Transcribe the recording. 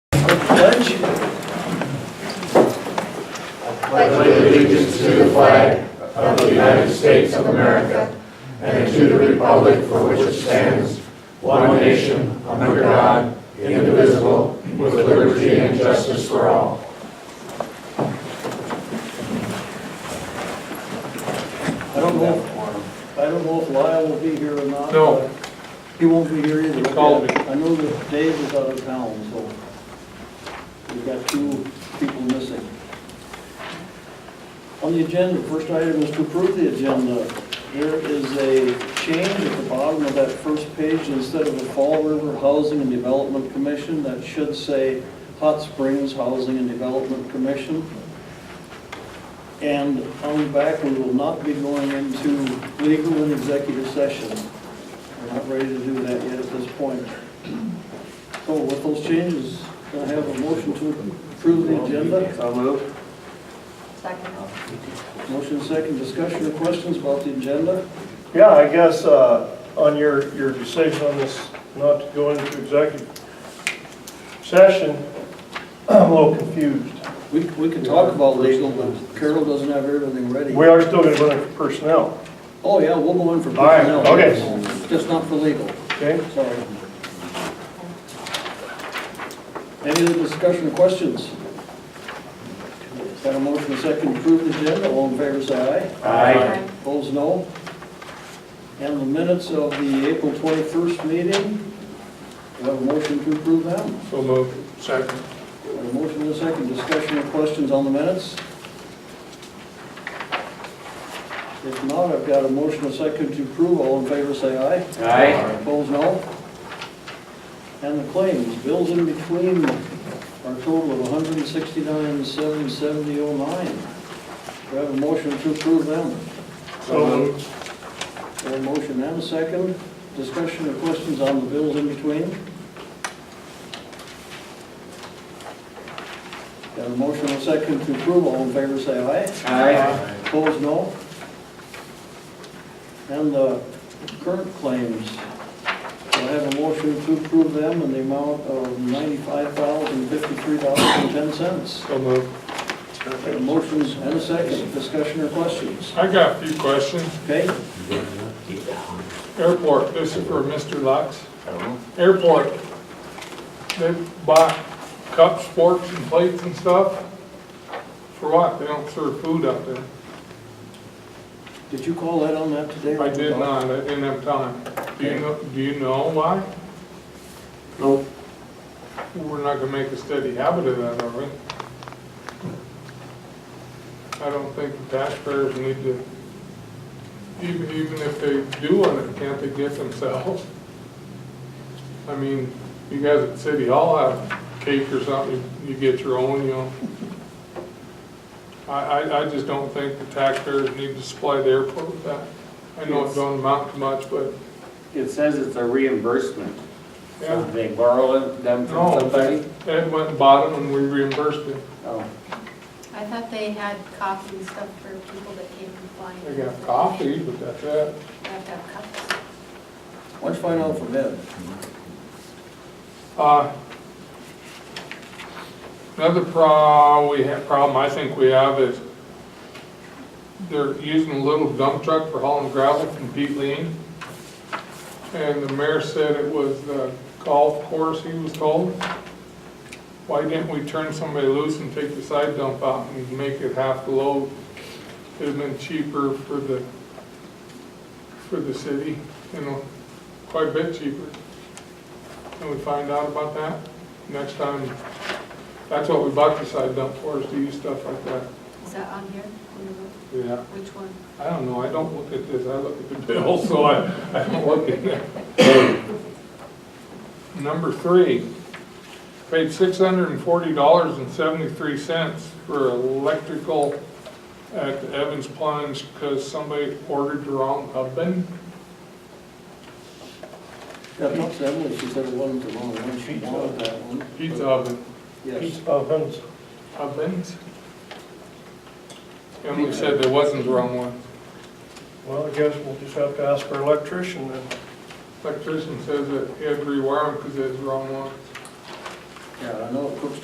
pledge. I don't know, if- I don't know if Lyle will be here or not. No. but He won't be here either. He called me. I know that Dave is out of town, so we've got two people missing. On the agenda, first item is to approve the agenda. There is a change at the bottom of that first page, instead of the Fall River Housing and Development Commission, that should say Hot Springs Housing and Development Commission. And on the back, we will not be going into legal and executive session. We're not ready to do that yet at this point. So Oh, with those changes, can I have a motion to approve the agenda? So moved. Second. Motion second, discussion or questions about the agenda? Yeah, I guess, uh, on your, your decision on this, not to go into executive session, I'm a little confused. We, we can talk about legal, but Carol doesn't have everything ready. We are still gonna run it for personnel, Oh, yeah, we'll go in for All right, personnel. okay. Just not for legal, okay? sorry. Any other discussion or questions? Got a motion second to approve the agenda, all in favor say aye. Aye. Opposed, no. And the minutes of the April 21st meeting, we have a motion to approve them. So moved. Second. We have A motion and a second, discussion or questions on the minutes? If not, I've got a motion and a second to approve, all in favor say aye. Aye. Opposed, no. And the claims, bills in between are a total of 169,770.09. We have a motion to approve them. So moved. We have a motion and a second, discussion or questions on the bills in between? Got a motion and a second to approve, all in favor say aye. Aye. Opposed, no. And the current claims, I have a motion to approve them in the amount of ninety-five thousand fifty-three dollars and ten cents. So moved. Motions and a second, discussion or questions? I got a few questions. Okay? Airport, this is for Mr. Lux. Airport, they bought cups, forks, and plates and stuff. For what? They don't serve food up there. Did you call that on that today? I did not, I didn't have time. Do you know, do you know why? No. We're not gonna make a steady habit of that, are we? I don't think the taxpayers need to, even, even if they do want it, can't they get themselves? I mean, you guys at City Hall have cake or something, you get your own, you know? I, I, I just don't think the taxpayers need to supply the airport with that. I know it don't amount to much, but, It says it's a reimbursement. So yeah. they borrow them- them No, from somebody? Ed went and bought them and we reimbursed it. Oh, I thought they had coffee and stuff for people that came from flying. They got coffee, but that's it. They have to have cups. Why don't you find out from Ed? Uh, Another pro, we have, problem I think we have is they're using a little dump truck for hauling gravel from Pete Lean. And the mayor said it was the golf course, he was told. Why didn't we turn somebody loose and take the side dump out and make it half the load? It'd been cheaper for the, for the city, you know, quite a bit cheaper. Can we find out about that next time? That's what we bought the side dump for, is to use stuff like that. Is that on here? On the road? Yeah. Which one? I don't know, I don't look at this, I look at the bill, so I, I don't look at that. Number three, paid six hundred and forty dollars and seventy-three cents for electrical at Evans Plunge because somebody ordered the wrong oven. Yeah, not to Emily, she said it wasn't the wrong one, she wanted that one. Pizza oven, Yes. Pizza ovens, ovens. And we said there wasn't the wrong one. well, I guess we'll just have to ask our electrician then. Electrician says that he had to rewire them because it was the wrong one. Yeah, I know Cook's